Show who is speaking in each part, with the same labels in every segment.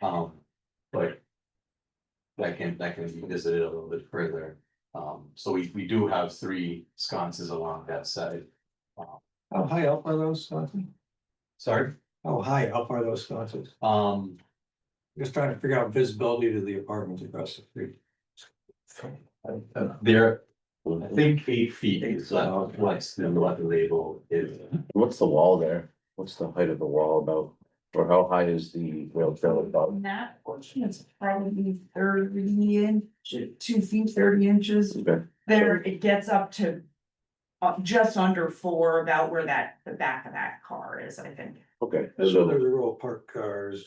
Speaker 1: Um, but. That can, that can be visited a little bit further. Um, so we, we do have three sconces along that side.
Speaker 2: Oh, How high up are those sconces?
Speaker 1: Sorry,
Speaker 2: How high up are those sconces?
Speaker 1: um,
Speaker 2: Just trying to figure out visibility to the apartments across the street.
Speaker 1: there, I think eight feet is uh, what's the what the label is.
Speaker 3: What's the wall there? What's the height of the wall about? Or how high is the rail trail about?
Speaker 4: On that portion, it's probably thirty inch, two feet, thirty inches.
Speaker 3: Okay.
Speaker 4: There, it gets up to. Uh, just under four, about where that, the back of that car is, I think.
Speaker 3: Okay,
Speaker 2: There's a
Speaker 3: so,
Speaker 2: row of parked cars.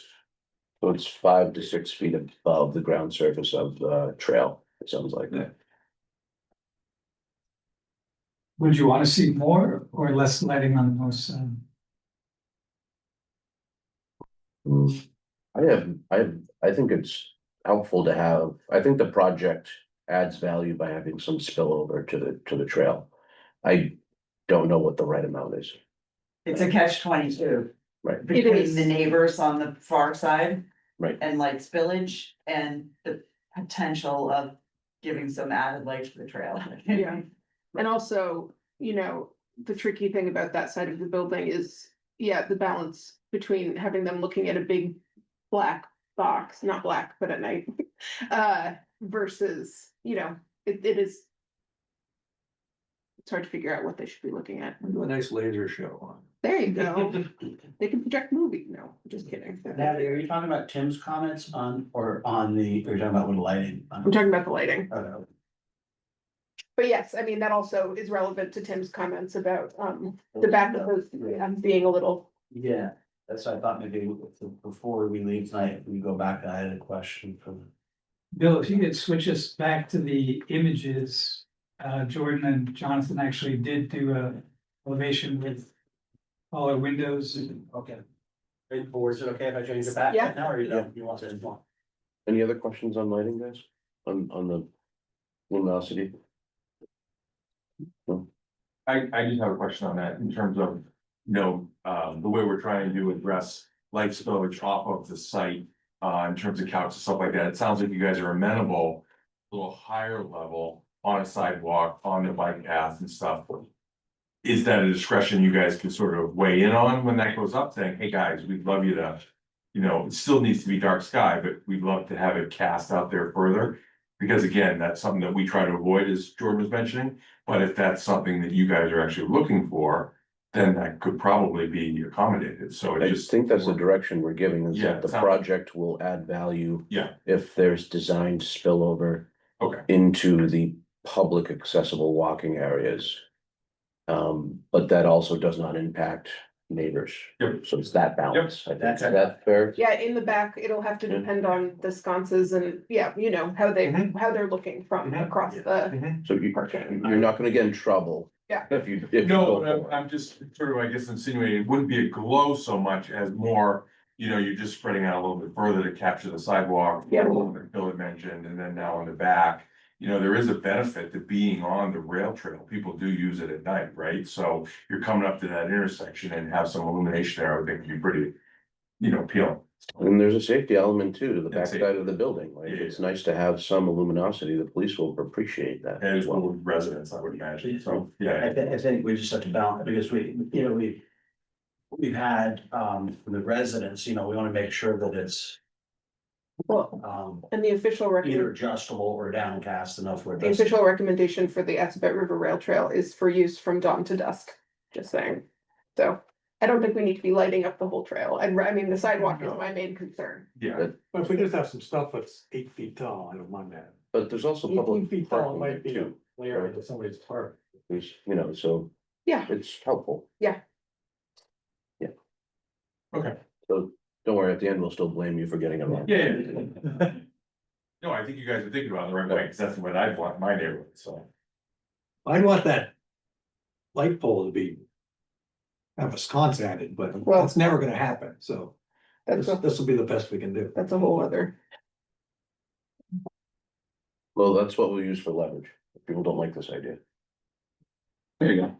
Speaker 3: so it's five to six feet above the ground surface of the trail, it sounds like.
Speaker 5: Yeah. Would you wanna see more or less lighting on the north side?
Speaker 3: Mm. I have, I, I think it's helpful to have, I think the project adds value by having some spillover to the, to the trail. I don't know what the right amount is.
Speaker 4: It's a catch twenty-two.
Speaker 3: Right. It
Speaker 4: Between
Speaker 6: is.
Speaker 4: the neighbors on the far side.
Speaker 3: Right.
Speaker 4: And like spillage and the potential of giving some added life to the trail.
Speaker 6: Yeah. And also, you know, the tricky thing about that side of the building is, yeah, the balance between having them looking at a big black box, not black, but at night, uh, versus, you know, it, it is. It's hard to figure out what they should be looking at.
Speaker 2: We do a nice laser show on.
Speaker 6: There you go. They can project movie. No, just kidding.
Speaker 7: Natalie, are you talking about Tim's comments on, or on the, are you talking about with lighting?
Speaker 6: I'm talking about the lighting.
Speaker 7: Uh,
Speaker 6: But yes, I mean, that also is relevant to Tim's comments about, um, the back of those, um, being a little,
Speaker 7: Yeah, that's what I thought maybe before we leave tonight, if we go back, I had a question for
Speaker 5: Bill, if you could switch us back to the images, uh, Jordan and Jonathan actually did do a elevation with all our windows.
Speaker 7: Okay. And boards, is it okay if I change it back
Speaker 6: Yeah.
Speaker 7: now, or you don't, you want this one?
Speaker 3: Any other questions on lighting, guys? On, on the luminosity?
Speaker 8: I, I just have a question on that in terms of, you know, um, the way we're trying to address light spillage off of the site. Uh, in terms of couches, stuff like that, it sounds like you guys are amenable, a little higher level on a sidewalk, on the bike path and stuff. Is that a discretion you guys can sort of weigh in on when that goes up, saying, hey, guys, we'd love you to. You know, it still needs to be dark sky, but we'd love to have it cast out there further. Because again, that's something that we try to avoid, as Jordan was mentioning. But if that's something that you guys are actually looking for, then that could probably be accommodated, so
Speaker 3: I
Speaker 8: it
Speaker 3: just
Speaker 8: just.
Speaker 3: think that's the direction we're giving, is
Speaker 8: Yeah,
Speaker 3: that the
Speaker 8: it sounds-
Speaker 3: project will add value.
Speaker 8: Yeah.
Speaker 3: If there's design spillover.
Speaker 8: Okay.
Speaker 3: Into the public accessible walking areas. Um, but that also does not impact neighbors.
Speaker 8: Yep.
Speaker 3: So it's that balance, I think, is
Speaker 7: That's it.
Speaker 3: that fair?
Speaker 6: Yeah, in the back, it'll have to
Speaker 3: Yeah.
Speaker 6: depend on the sconces and, yeah, you know, how they,
Speaker 8: Mhm.
Speaker 6: how they're looking from
Speaker 8: Mhm.
Speaker 6: across the,
Speaker 8: Mhm.
Speaker 3: So you, you're not gonna get in trouble.
Speaker 6: Yeah.
Speaker 3: If you. if you go
Speaker 8: No,
Speaker 3: for
Speaker 8: I'm,
Speaker 3: it.
Speaker 8: I'm just sort of, I guess insinuating, it wouldn't be a glow so much as more, you know, you're just spreading out a little bit further to capture the sidewalk.
Speaker 6: Yeah.
Speaker 8: a little bit Bill had mentioned, and then now on the back, you know, there is a benefit to being on the rail trail, people do use it at night, right? So you're coming up to that intersection and have some illumination there, I would think would be pretty, you know, appealing.
Speaker 3: And there's a safety element too, to the
Speaker 8: And
Speaker 3: backside
Speaker 8: safety.
Speaker 3: of the building, like,
Speaker 8: Yeah, yeah.
Speaker 3: it's nice to have some luminosity, the police will appreciate that. as
Speaker 8: And it's
Speaker 3: well.
Speaker 8: one residents, I would imagine, so, yeah.
Speaker 7: I think, I think we just have to balance, because we, you know, we. We've had, um, from the residents, you know, we wanna make sure that it's,
Speaker 6: well,
Speaker 7: um,
Speaker 6: and the official
Speaker 7: either
Speaker 6: recommend,
Speaker 7: adjustable or downcast enough where. it
Speaker 6: the
Speaker 7: doesn't-
Speaker 6: official recommendation for the Assabet River Rail Trail is for use from dawn to dusk, just saying. So I don't think we need to be lighting up the whole trail. And I mean, the sidewalk is my main concern.
Speaker 8: Yeah,
Speaker 2: But if we just have some stuff that's eight feet tall, I don't mind that.
Speaker 3: But there's also
Speaker 2: Eighteen
Speaker 3: public
Speaker 2: feet tall
Speaker 3: parking
Speaker 2: might
Speaker 3: there
Speaker 2: be a
Speaker 3: too,
Speaker 2: layer into somebody's park.
Speaker 3: there's, you know, so.
Speaker 6: Yeah.
Speaker 3: It's helpful.
Speaker 6: Yeah.
Speaker 3: Yeah.
Speaker 8: Okay.
Speaker 3: So, don't worry, at the end, we'll still blame you for getting it wrong.
Speaker 8: yeah, yeah. No, I think you guys are thinking about it the right way, because that's what I want in my neighborhood, so.
Speaker 2: I'd want that light pole to be have a sconce added, but
Speaker 6: Well-
Speaker 2: that's never gonna happen, so this,
Speaker 6: That's, a
Speaker 2: this will be the best we can do.
Speaker 6: that's a whole other,
Speaker 3: Well, that's what we use for leverage, people don't like this idea,
Speaker 8: There you go.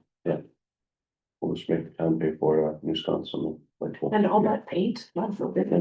Speaker 3: we'll just make the town pay for a new sconce, something like.
Speaker 6: and all that paint, God forbid.